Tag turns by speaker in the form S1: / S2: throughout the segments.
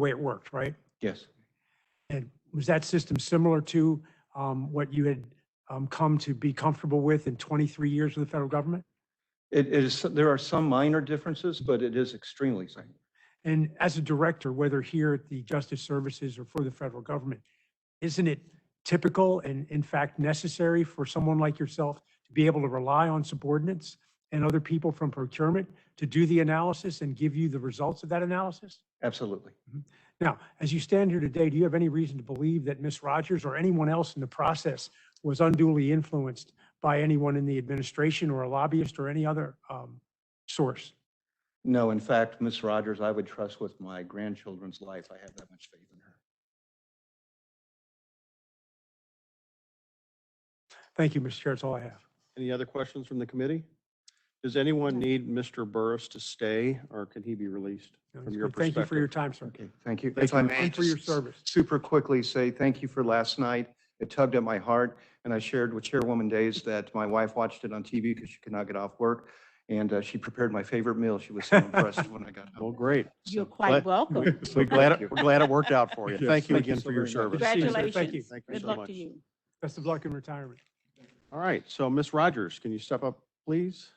S1: way it worked, right?
S2: Yes.
S1: And was that system similar to um, what you had um, come to be comfortable with in 23 years with the federal government?
S2: It it is, there are some minor differences, but it is extremely similar.
S1: And as a director, whether here at the Justice Services or for the federal government, isn't it typical and in fact necessary for someone like yourself to be able to rely on subordinates and other people from procurement to do the analysis and give you the results of that analysis?
S2: Absolutely.
S1: Now, as you stand here today, do you have any reason to believe that Ms. Rogers or anyone else in the process was unduly influenced by anyone in the administration or a lobbyist or any other um, source?
S2: No, in fact, Miss Rogers, I would trust with my grandchildren's life. I have that much faith in her.
S1: Thank you, Mr. Chair. That's all I have.
S3: Any other questions from the committee? Does anyone need Mr. Burris to stay, or can he be released? From your
S1: Thank you for your
S3: perspective.
S1: time, sir.
S2: Okay, thank you.
S3: Thank
S2: If I
S3: you.
S2: may.
S1: And for your
S2: just
S1: service.
S2: Super quickly say thank you for last night. It tugged at my heart, and I shared with Chairwoman Days that my wife watched it on TV because she could not get off work, and uh, she prepared my favorite meal. She was so impressed when I got
S3: Well,
S2: home.
S3: great.
S4: You're
S3: So
S4: quite
S3: glad-
S4: welcome.
S3: We're glad,
S2: Thank
S3: it-
S2: you.
S3: we're glad it worked out for you.
S2: Yes,
S3: Thank you
S2: thank you
S3: again
S2: so
S3: for your
S2: very much.
S3: service.
S1: Thank you, sir. Thank you.
S4: Congratulations.
S3: Thank you
S4: Good
S3: so
S4: luck to
S3: much.
S4: you.
S1: Best of luck in retirement.
S3: All right, so Ms. Rogers, can you step up, please?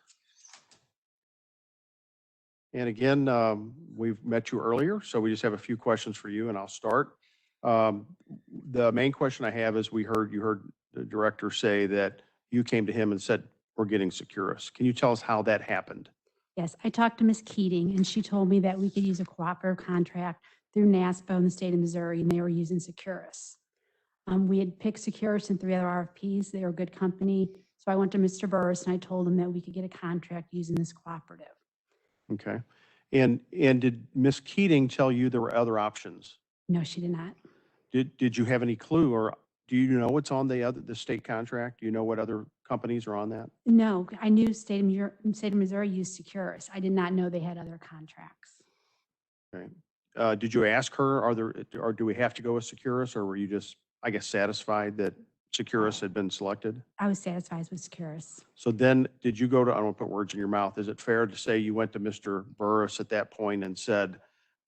S3: And again, um, we've met you earlier, so we just have a few questions for you, and I'll start. Um, The main question I have is, we heard, you heard the director say that you came to him and said, we're getting Securus. Can you tell us how that happened?
S5: Yes, I talked to Ms. Keating and she told me that we could use a cooperative contract through NASPO in the state of Missouri and they were using Securus. Um, we had picked Securus and three other RFPs. They were a good company. So I went to Mr. Burris and I told him that we could get a contract using this cooperative.
S3: Okay. And, and did Ms. Keating tell you there were other options?
S5: No, she did not.
S3: Did, did you have any clue, or do you know what's on the other, the state contract? Do you know what other companies are on that?
S5: No, I knew state of, Missouri- state of Missouri used Securus. I did not know they had other contracts.
S3: Uh, did you ask her, are there, or do we have to go with Securus, or were you just, I guess, satisfied that Securus had been selected?
S5: I was satisfied with Securus.
S3: So then, did you go to, I don't want to put words in your mouth, is it fair to say you went to Mr. Burris at that point and said,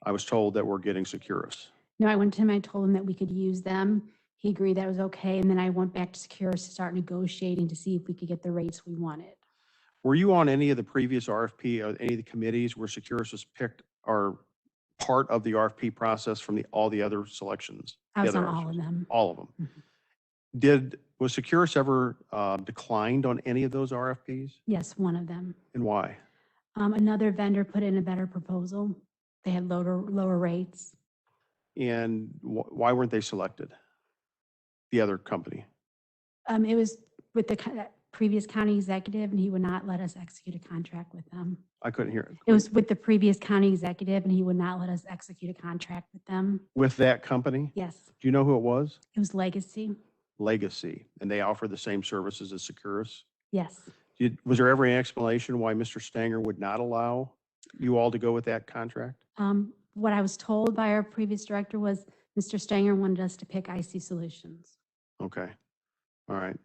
S3: I was told that we're getting Securus?
S5: No, I went to him, I told him that we could use them. He agreed that was okay, and then I went back to Securus to start negotiating to see if we could get the rates we wanted.
S3: Were you on any of the previous RFP, or uh, any of the committees where Securus was picked or part of the RFP process from the, all the other selections?
S5: I
S3: the
S5: was on
S3: other
S5: all of
S3: options?
S5: them.
S3: All of them.
S5: Mhm.
S3: Did, was Securus ever uh, declined on any of those RFPs,
S5: Yes, one of them.
S3: and why?
S5: Um, another vendor put in a better proposal. They had lower, lower rates.
S3: And wh- why weren't they selected? The other company?
S5: Um, it was with the co- previous county executive, and he would not let us execute a contract with them.
S3: I couldn't hear it.
S5: It was with the previous county executive, and he would not let us execute a contract with them.
S3: With that company?
S5: Yes,
S3: Do you know who it was?
S5: it was legacy.
S3: Legacy, and they offer the same services as Securus?
S5: Yes.
S3: Did, was there ever an explanation why Mr. Stanger would not allow you all to go with that contract?
S5: Um, What I was told by our previous director was Mr. Stanger wanted us to pick IC Solutions.
S3: Okay, all right.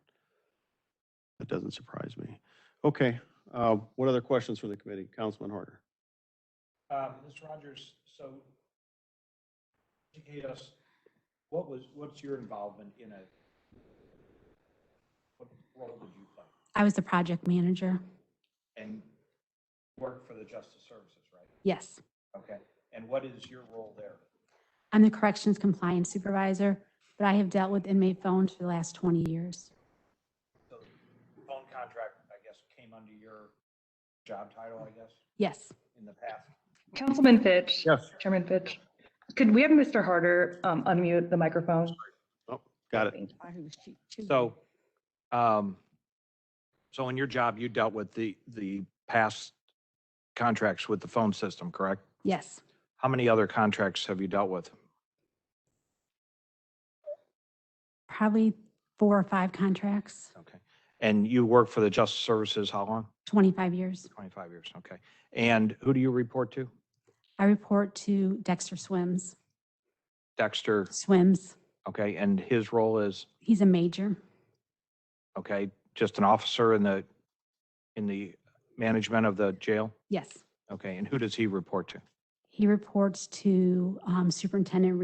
S3: That doesn't surprise me. Okay, uh, what other questions from the committee? Councilman Harder?
S6: Um, Ms. Rogers, so educate us, what was, what's your involvement in a, what role did you play?
S5: I was the project manager.
S6: And work for the Justice Services, right?
S5: Yes.
S6: Okay, and what is your role there?
S5: I'm the corrections compliance supervisor, but I have dealt with inmate phones for the last 20 years.
S6: The phone contract, I guess, came under your job title, I guess,
S5: Yes.
S6: in the past.
S7: Councilman Fitch.
S3: Yes.
S7: Chairman Fitch. Could we have Mr. Harder um, unmute the microphone?
S3: Got it.
S7: Thank you.
S8: So, um, so in your job, you dealt with the, the past contracts with the phone system, correct?
S5: Yes.
S8: How many other contracts have you dealt with?
S5: Probably four or five contracts,
S8: Okay. And you worked for the Justice Services, how long?
S5: 25 years.
S8: 25 years, okay. And who do you report to?
S5: I report to Dexter Swims.
S8: Dexter,
S5: Swims,
S8: okay, and his role is,
S5: he's a major.
S8: okay, just an officer in the, in the management of the jail?
S5: Yes.
S8: Okay, and who does he report to?
S5: He- He reports to um, Superintendent